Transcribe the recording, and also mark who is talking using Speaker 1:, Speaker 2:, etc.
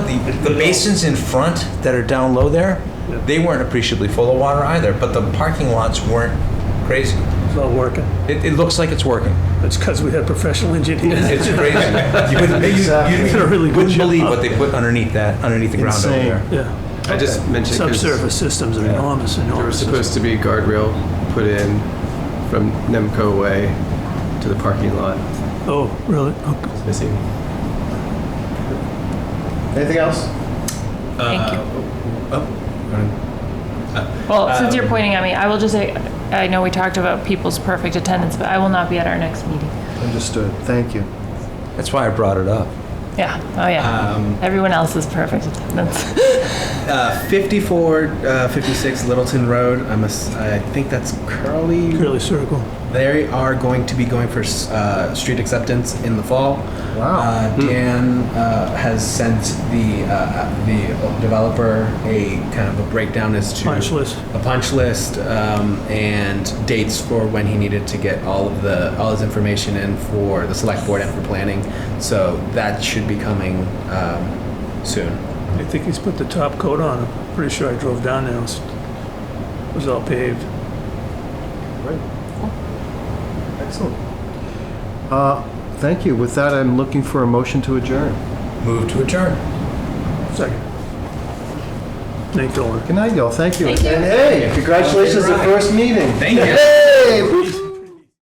Speaker 1: the, the basins in front that are down low there, they weren't appreciably full of water either, but the parking lots weren't crazy.
Speaker 2: It's not working.
Speaker 1: It, it looks like it's working.
Speaker 2: It's because we had professional engineers.
Speaker 1: It's crazy. You wouldn't,
Speaker 2: They
Speaker 1: you-
Speaker 2: did a
Speaker 1: you
Speaker 2: really good
Speaker 1: wouldn't
Speaker 2: job.
Speaker 1: believe what they put underneath that, underneath the ground over
Speaker 3: Insane.
Speaker 1: there.
Speaker 2: Yeah.
Speaker 4: I just mentioned 'cause
Speaker 2: Subsurface systems are enormous,
Speaker 4: there was
Speaker 2: enormous.
Speaker 4: supposed to be a guardrail put in from Nemco Way to the parking lot.
Speaker 2: Oh, really? Okay.
Speaker 4: It's missing.
Speaker 3: Anything else?
Speaker 5: Thank you.
Speaker 3: Oh,
Speaker 5: Well, since you're pointing at me, I will just say, I know we talked about people's perfect attendance, but I will not be at our next meeting.
Speaker 3: understood. Thank you.
Speaker 1: That's why I brought it up.
Speaker 5: Yeah, oh yeah. Everyone else is perfect attendance.
Speaker 6: Uh, 54, uh, 56 Littleton Road. I'm a, s- I think that's Curly.
Speaker 2: Curly circle.
Speaker 6: They are going to be going for s- uh, street acceptance in the fall.
Speaker 3: Wow.
Speaker 6: Uh,
Speaker 2: Hmm.
Speaker 6: Dan uh, has sent the uh, the developer a kind of a breakdown as to
Speaker 2: Punch list.
Speaker 6: a punch list um, and dates for when he needed to get all of the all his information in for the select board and for planning. So that should be coming um, soon.
Speaker 2: I think he's put the top coat on. I'm pretty sure I drove down there. It was, it was all paved.
Speaker 3: Excellent. Uh, Thank you. With that, I'm looking for a motion to adjourn.
Speaker 1: Move to adjourn.
Speaker 2: Second. Nate Dolan.
Speaker 3: Good night, y'all. Thank you.
Speaker 5: Thank you.
Speaker 3: And hey, congratulations on the first meeting.
Speaker 6: Thank you.
Speaker 3: Hey, we